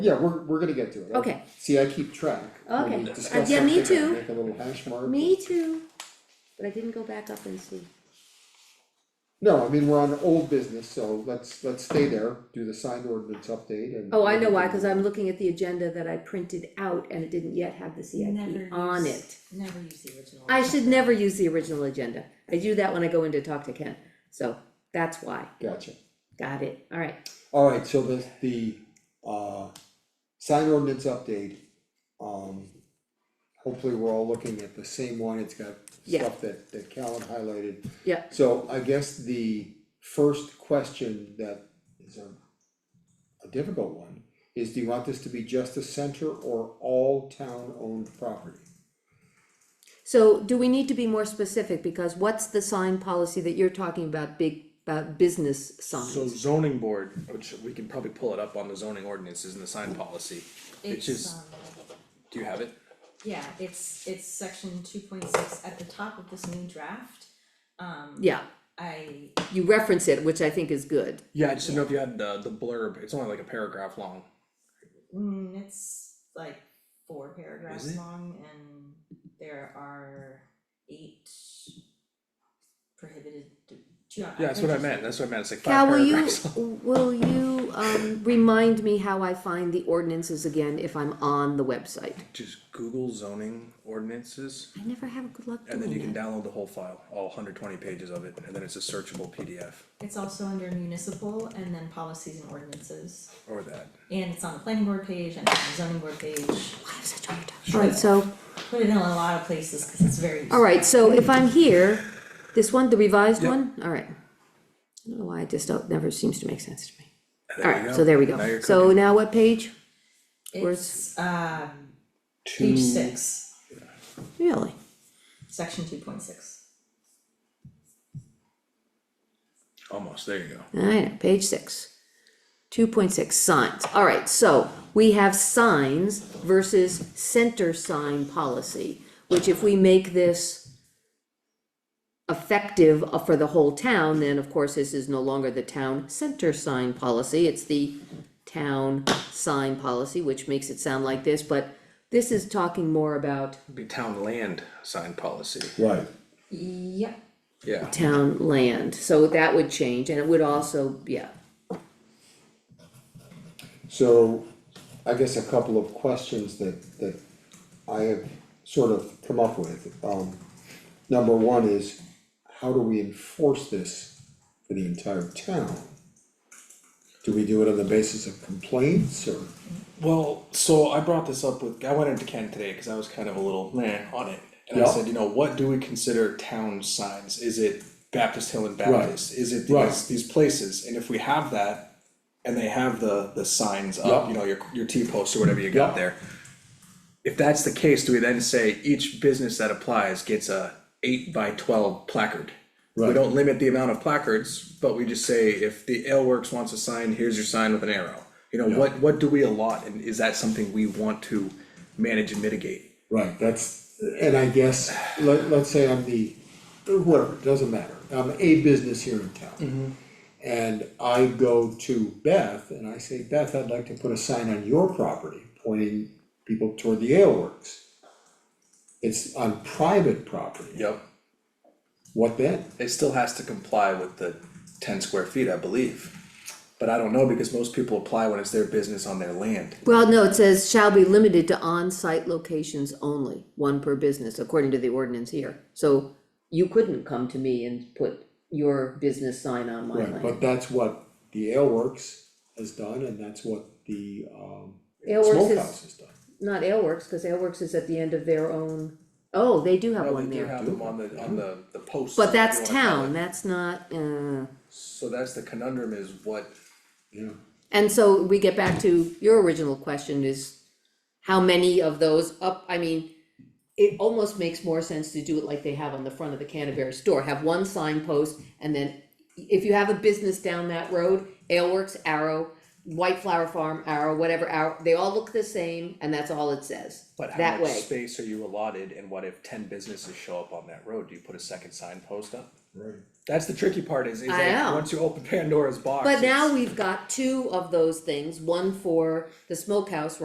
Yeah, we're, we're gonna get to it. Okay. See, I keep track. When we Okay. discuss Uh, yeah, me something, I too. Make a little hash mark. Me too, but I didn't go back up and see. No, I mean, we're on old business, so let's, let's stay there, do the sign ordinance update and. Oh, I know why, cause I'm looking at the agenda that I printed out and it didn't yet have the CIP Never on use- it. Never use the original. I should never use the original agenda. I do that when I go in to talk to Ken, so that's why. Gotcha. Got it, alright. Alright, so the, the, uh, sign ordinance update, um, hopefully we're all looking at the same one, it's got Yeah. stuff that, that Callan highlighted. Yeah. So I guess the first question that is a, a difficult one, is do you want this to be just a center or all town-owned property? So do we need to be more specific, because what's the sign policy that you're talking about, big, about business So signs? zoning board, which we can probably pull it up on the zoning ordinances and the sign policy, which It's, is, um, do you have it? Yeah, it's, it's section two point six, at the top of this new draft, um, Yeah, I, you reference it, which I think is good, Yeah, I just didn't know if you had the, the blurb, it's only like a paragraph long. mm, it's like four paragraphs it? long and there are eight prohibited, d- two. Yeah, that's what I meant, that's what I meant, it's like Cal, five will you, paragraphs. will you, um, remind me how I find the ordinances again if I'm on the website? Just Google zoning ordinances, I never have good luck and then you doing can that. download the whole file, all hundred twenty pages of it, and then it's a searchable PDF, It's also under municipal and then policies and ordinances, or that. and it's on the planning board page and on the zoning board page, I have such a hard time. Alright, so, put it in a lot of places, cause it's very. useful. alright, so if I'm here, this one, the revised Yep. one, alright. I don't know why, it just don't, never seems to make sense to me. There you Alright, so there we Now go. you're So cooking. now what page? It's um Two- page six, Really? section two point six. Almost, there you go. Alright, page six. Two point six, signs. Alright, so we have signs versus center sign policy, which if we make this effective uh, for the whole town, then of course this is no longer the town center sign policy, it's the town sign policy, which makes it sound like this, but this is talking more about It'd Be town land sign policy, Right. Yep. yeah. town land, so that would change, and it would also, yeah. So I guess a couple of questions that, that I have sort of come up with. Um, number one is, how do we enforce this for the entire town? Do we do it on the basis of complaints or, Well, so I brought this up with I went into Ken today because I was kind of a little meh on it, and Yeah. I said, you know, what do we consider town signs? Is it Baptist Hill and Baptist? Is it these Right. these places? And if we have that, and they have the the signs up, Yeah. you know, your your T post or whatever you got Yeah. there. If that's the case, do we then say each business that applies gets a eight by twelve placard? We Right. don't limit the amount of placards, but we just say if the Ale Works wants a sign, here's your sign with an arrow. You know, what, what do we allot and is that something we want to manage and mitigate? right, that's, and I guess, let, let's say I'm the, whatever, doesn't matter. I'm a business here in Mm-hmm. town. And I go to Beth and I say, Beth, I'd like to put a sign on your property pointing people toward the ale works. It's on private property. Yep. What then? It still has to comply with the ten square feet, I believe. But I don't know because most people apply when it's their business on their land. Well, no, it says shall be limited to on-site locations only, one per business, according to the ordinance here. So you couldn't come to me and put your business sign on my Right, but land. that's what the ale works has done and that's what the um Ale Works is- smokehouse has done. Not Aleworks, cause Aleworks is at the end of their own, oh, they do have one They do there. have them on the, on the, the posts. But if you that's wanna call town, it. that's not, uh, So that's the conundrum is what, Yeah. and so we get back to your original question is how many of those up, I mean, it almost makes more sense to do it like they have on the front of the Canterbury store, have one signpost, and then if you have a business down that road, Ale Works, Arrow, White Flower Farm, Arrow, whatever, Arrow, they all look the same, and that's all it says, But how that much way. space are you allotted and what if ten businesses show up on that road? Do you put a second signpost up? Right. That's the tricky part is, is I that know. once you open Pandora's box. But it's- now we've got two of those things, one for the smokehouse